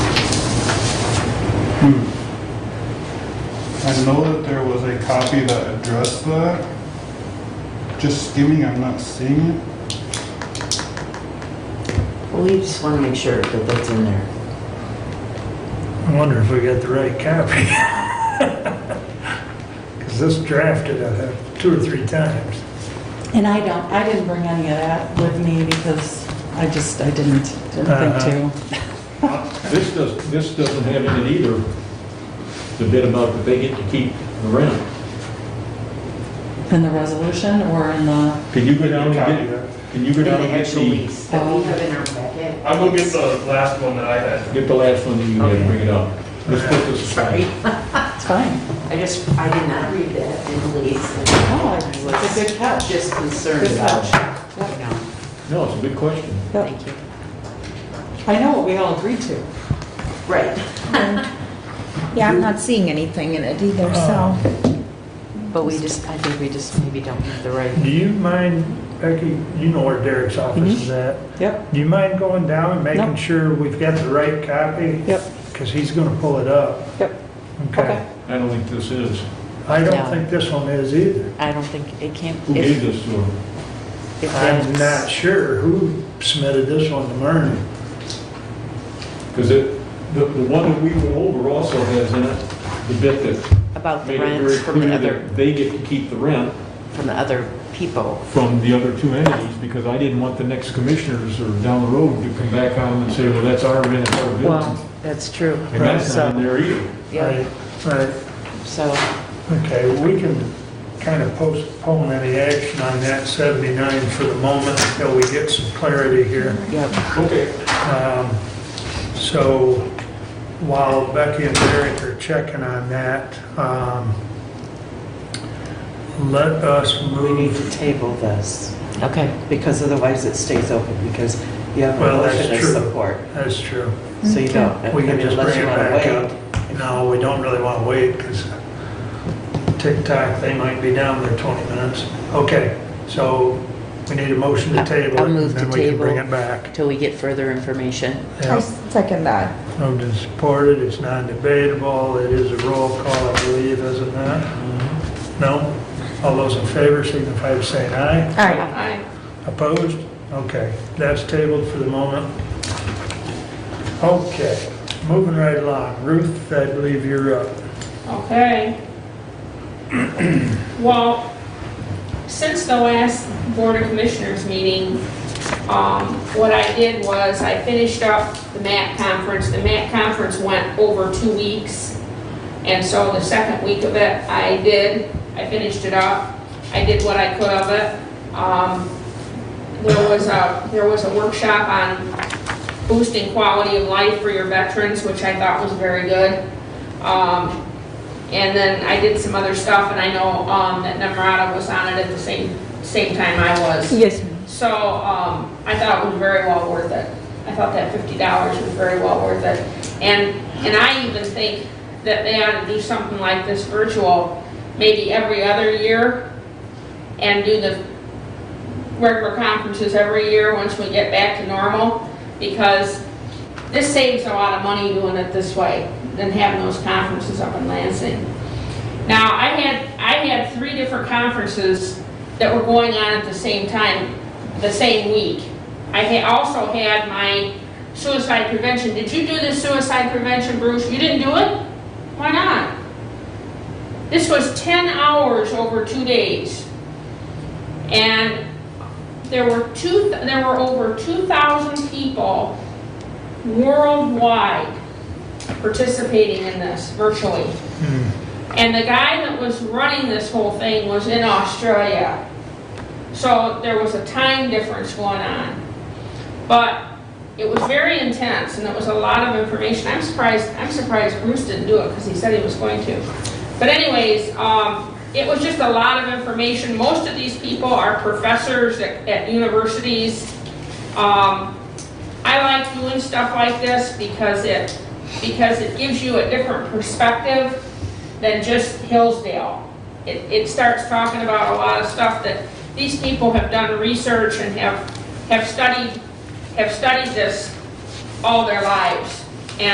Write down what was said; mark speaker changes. Speaker 1: I know that there was a copy that addressed that. Just skimming, I'm not seeing it.
Speaker 2: Well, we just want to make sure that that's in there.
Speaker 3: I wonder if we got the right copy. Because this drafted uh, two or three times.
Speaker 4: And I don't, I didn't bring any of that with me because I just, I didn't, didn't think to.
Speaker 5: This does, this doesn't have in it either, the bit about that they get to keep the rent.
Speaker 4: In the resolution or in the,
Speaker 5: Can you go down and
Speaker 1: Copy
Speaker 5: get,
Speaker 1: that.
Speaker 5: can you go
Speaker 2: In
Speaker 5: down
Speaker 2: the
Speaker 5: and get
Speaker 2: actual
Speaker 5: the,
Speaker 2: lease that we have in our packet.
Speaker 6: I will get the last one that I had.
Speaker 5: get the last one that you had, bring it up. Let's put this
Speaker 2: Sorry,
Speaker 5: aside.
Speaker 4: it's fine.
Speaker 2: I just, I did not read that in the lease.
Speaker 4: Oh, it's a good catch.
Speaker 2: Just concerned
Speaker 4: Good
Speaker 2: about,
Speaker 4: catch.
Speaker 2: you know,
Speaker 5: No, it's a good question.
Speaker 4: Yep.
Speaker 2: thank you.
Speaker 4: I know what we all agreed to.
Speaker 2: Right,
Speaker 7: Yeah, I'm not seeing anything in it either, so.
Speaker 3: Uh,
Speaker 2: but we just, I think we just maybe don't have the right.
Speaker 3: Do you mind, Becky, you know where Derek's office is at?
Speaker 4: Mm-hmm. Yep,
Speaker 3: Do you mind going down and making
Speaker 4: Nope.
Speaker 3: sure we've got the right copy?
Speaker 4: Yep.
Speaker 3: Because he's going to pull it up.
Speaker 4: yep, okay.
Speaker 3: Okay.
Speaker 5: I don't think this is.
Speaker 3: I
Speaker 2: Yeah.
Speaker 3: don't think this one is either.
Speaker 2: I don't think it can't.
Speaker 5: Who gave this to her?
Speaker 3: I'm not sure who submitted this one to Mern.
Speaker 5: Because it, the, the one that we went over also has in it the bit that
Speaker 2: About the
Speaker 5: made it
Speaker 2: rents
Speaker 5: very
Speaker 2: from the
Speaker 5: clear
Speaker 2: other,
Speaker 5: that they get to keep the rent
Speaker 2: from the other people.
Speaker 5: from the other two entities, because I didn't want the next commissioners or down the road to come back on and say, well, that's our rent, it's our business.
Speaker 2: Well, that's true.
Speaker 5: And that's not in
Speaker 2: So,
Speaker 5: there either.
Speaker 2: yeah,
Speaker 3: Right, Right.
Speaker 2: so,
Speaker 3: Okay, we can kind of postpone any action on that 79 for the moment until we get some clarity here.
Speaker 2: yeah,
Speaker 5: Okay.
Speaker 3: Um, So while Becky and Derek are checking on that, um, let us
Speaker 8: We need
Speaker 3: move,
Speaker 8: to table this,
Speaker 2: okay.
Speaker 7: Mm-hmm.
Speaker 8: because otherwise it stays open, because you have a
Speaker 3: Well, that's
Speaker 8: motion of
Speaker 3: true.
Speaker 8: support,
Speaker 3: that's true.
Speaker 8: so you don't, I
Speaker 3: We
Speaker 8: mean,
Speaker 3: can just
Speaker 8: unless
Speaker 3: bring
Speaker 8: you
Speaker 3: it
Speaker 8: want to
Speaker 3: back up.
Speaker 8: wait.
Speaker 3: No, we don't really want to wait because TikTok, they might be down there 20 minutes. Okay, so we need a motion to
Speaker 2: I-
Speaker 3: table
Speaker 2: I'll
Speaker 3: it, and
Speaker 2: move to
Speaker 3: then we can bring
Speaker 2: table.
Speaker 3: it back.
Speaker 2: Till we get further information.
Speaker 7: I
Speaker 3: Yeah,
Speaker 7: second that.
Speaker 3: moved and supported, it's non-debatable, it is a roll call, I believe, is it not? No? All those in favor signify by saying aye.
Speaker 7: All right,
Speaker 3: Opposed? Okay, that's tabled for the moment. Okay, moving right along. Ruth, I believe you're up.
Speaker 9: Okay. Well, since the last Board of Commissioners meeting, um, what I did was I finished up the MAC conference. The MAC conference went over two weeks. And so the second week of it, I did, I finished it up. I did what I could of it. Um, there was a, there was a workshop on boosting quality of life for your veterans, which I thought was very good. Um, and then I did some other stuff, and I know um, that Nemrata was on it at the same, same time I was.
Speaker 7: yes,
Speaker 9: So um, I thought it was very well worth it. I thought that fifty dollars was very well worth it. And, and I even think that they ought to do something like this virtual, maybe every other year, and do the regular conferences every year once we get back to normal, because this saves a lot of money doing it this way than having those conferences up in Lansing. Now, I had, I had three different conferences that were going on at the same time, the same week. I had also had my suicide prevention. Did you do the suicide prevention, Bruce? You didn't do it? Why not? This was 10 hours over two days. And there were two, there were over 2,000 people worldwide participating in this virtually. And the guy that was running this whole thing was in Australia. So there was a time difference going on. But it was very intense and it was a lot of information. I'm surprised, I'm surprised Bruce didn't do it because he said he was going to. But anyways, um, it was just a lot of information. Most of these people are professors at, at universities. Um, I like doing stuff like this because it, because it gives you a different perspective than just Hillsdale. It, it starts talking about a lot of stuff that these people have done research and have, have studied, have studied this all their lives.